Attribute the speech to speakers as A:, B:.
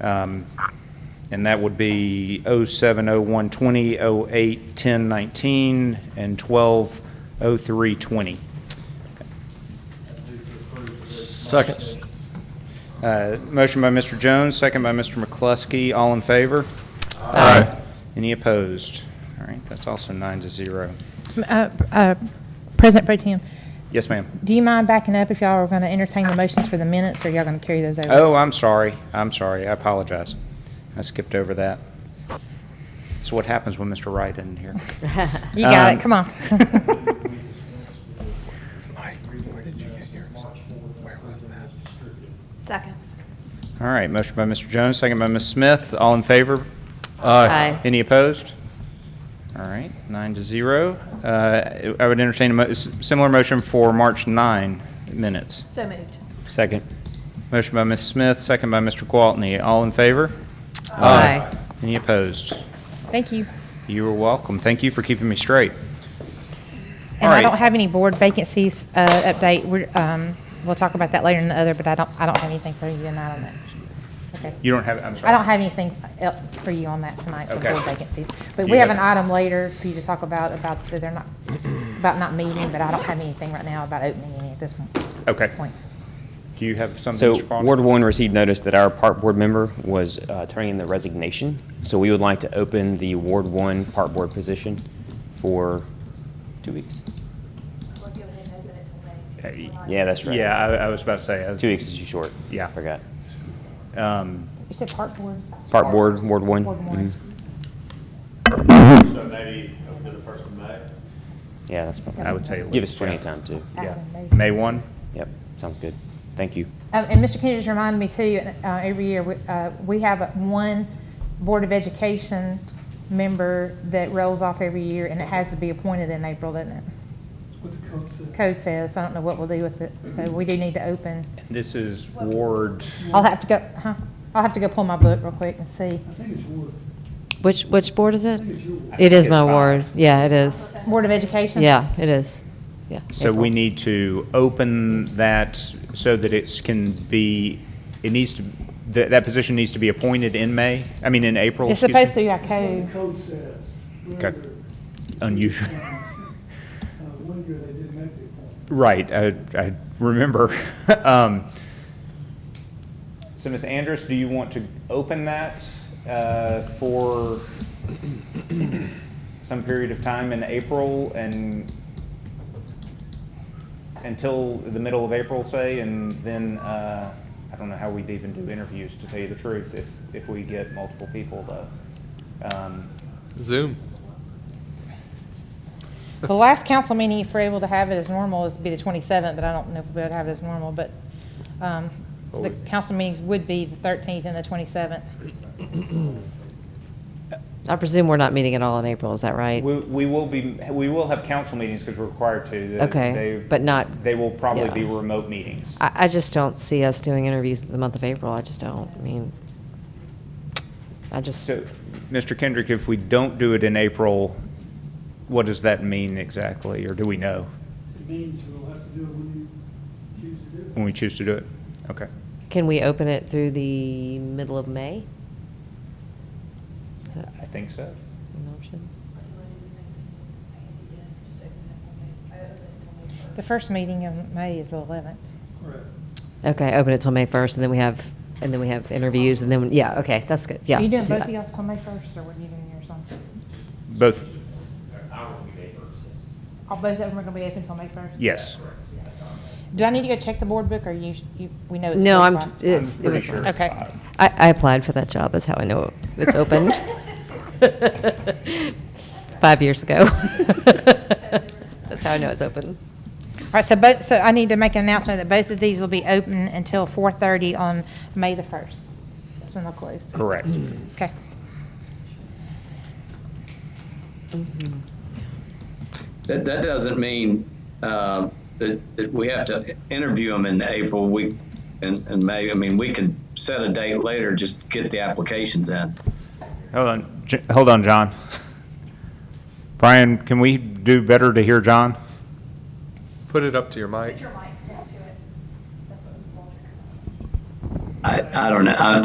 A: Um, And that would be 070120, 081019, and 120320.
B: Second.
A: Uh, Motion by Mr. Jones, second by Mr. McCluskey. All in favor?
B: Aye.
A: Any opposed? All right, that's also nine to zero.
C: Uh, uh, President Pro Tem,
A: Yes, ma'am.
C: do you mind backing up if y'all are going to entertain the motions for the minutes, or y'all going to carry those over?
A: Oh, I'm sorry. I'm sorry. I apologize. I skipped over that. That's what happens when Mr. Wright isn't here.
C: You got
A: um,
C: it, come on.
D: Second.
A: All right, motion by Mr. Jones, second by Ms. Smith. All in favor?
D: Aye.
A: Any opposed? All right, nine to zero. Uh, I would entertain a mo- s- similar motion for March 9 minutes.
D: So moved.
A: Second. Motion by Ms. Smith, second by Mr. Gwaltney. All in favor?
D: Aye.
A: Any opposed?
C: Thank you.
A: You are welcome. Thank you for keeping me straight. All
C: And I
A: right.
C: don't have any board vacancies uh, update. We're, um, We'll talk about that later in the other, but I don't, I don't have anything for you tonight on that. Okay.
A: You don't have, I'm sorry.
C: I don't have anything el- for you on that tonight for
A: Okay.
C: board vacancies. But
A: You
C: we have
A: have-
C: an item later for you to talk about, about that they're not, about not meeting, but I don't have anything right now about opening any at this
A: Okay.
C: point.
A: Do you have something,
E: So
A: Mr. Gwaltney?
E: Ward One received notice that our park board member was uh, turning in the resignation. So we would like to open the Ward One park board position for two weeks.
D: We'll go ahead and open it till May, because
A: Hey,
D: we're not-
E: Yeah, that's right.
A: Uh, Yeah, I I was about to say. I was-
E: Two weeks is too short.
A: Yeah.
E: I forgot.
A: Um,
C: You said park board?
E: Park board, Ward One.
C: Ward
E: Mhm.
C: one.
A: Mm-hmm.
F: So maybe up to the first of May?
E: Yeah, that's. fine.
A: I would say. at
E: Give
A: least,
E: us plenty of
A: yeah.
E: time too.
A: Yeah.
C: After
A: May
C: May.
A: 1?
E: Yep, sounds good. Thank you.
C: Um, And Mr. Kennedy just reminded me too, uh, every year, we, uh, we have a- one Board of Education member that rolls off every year, and it has to be appointed in April, doesn't it?
G: What the code says.
C: Code says, I don't know what we'll do with it, so we do need to open.
A: This is Ward,
C: I'll have to go, huh, I'll have to go pull my book real quick and see.
G: I think it's wood.
H: Which, which board is it?
G: I think it's your ward.
H: It is
A: it's
H: my
A: five.
H: ward. Yeah, it is.
C: Board of Education?
H: Yeah, it is. Yeah.
A: so we
H: April.
A: need to open that so that it can be, it needs to, that, that position needs to be appointed in May, I mean, in April,
C: It's
A: excuse me?
C: supposed to be by
G: That's
C: code.
G: what the code says.
A: Okay.
G: Whether,
A: Unusual.
G: uh, One year they didn't make the appointment.
A: Right, I, I remember. Um, So Ms. Andrus, do you want to open that uh, for some period of time in April and until the middle of April, say, and then, uh, I don't know how we'd even do interviews, to tell you the truth, if, if we get multiple people, though. Um,
B: Zoom.
C: The last council meeting, if we're able to have it as normal, is be the 27th, but I don't know if we'll have it as normal, but um, the council meetings would be the 13th and the 27th.
H: I presume we're not meeting at all in April, is that right?
A: We, we will be, we will have council meetings because we're required to. The-
H: Okay,
A: they-
H: but not-
A: They will probably
H: yeah.
A: be remote meetings.
H: I, I just don't see us doing interviews the month of April. I just don't. I mean, I just,
A: So, Mr. Kendrick, if we don't do it in April, what does that mean exactly, or do we know
G: It means we'll have to do it when you choose to do it.
A: when we choose to do it? Okay.
H: can we open it through the middle of May? Is that
A: I think so.
H: an option?
D: But you wanna do the same thing that Andy did, just open it till May- I opened it till May first.
C: The first meeting in May is the 11th.
G: Correct.
H: Okay, open it till May 1st, and then we have, and then we have interviews, and then, yeah, okay, that's good, yeah.
C: Are you doing
H: do
C: both
H: that.
C: of y'all on May 1st, or what are you doing yours on?
A: Both,
C: All both of them are going to be open until May 1st?
A: yes.
C: Do I need to go check the board book, or you, you- we know it's?
H: No, I'm,
C: closed by?
A: I'm
H: it's, it
A: pretty
H: was
A: sure
H: fine.
A: it's
C: Okay.
A: five.
H: I, I applied for that job, that's how I know it's opened. Five years ago. That's how I know it's open.
C: All right, so both, so I need to make an announcement that both of these will be open until 4:30 on May the 1st. That's when they'll close.
A: Correct.
C: Okay.
I: That, that doesn't mean uh, that, that we have to interview them in April, we, and, and May. I mean, we could set a date later, just get the applications in.
A: Hold on, J- hold on, John. Brian, can we do better to hear John?
B: Put it up to your mic.
D: Put your mic next to it. That's what we want.
I: I, I don't know, I,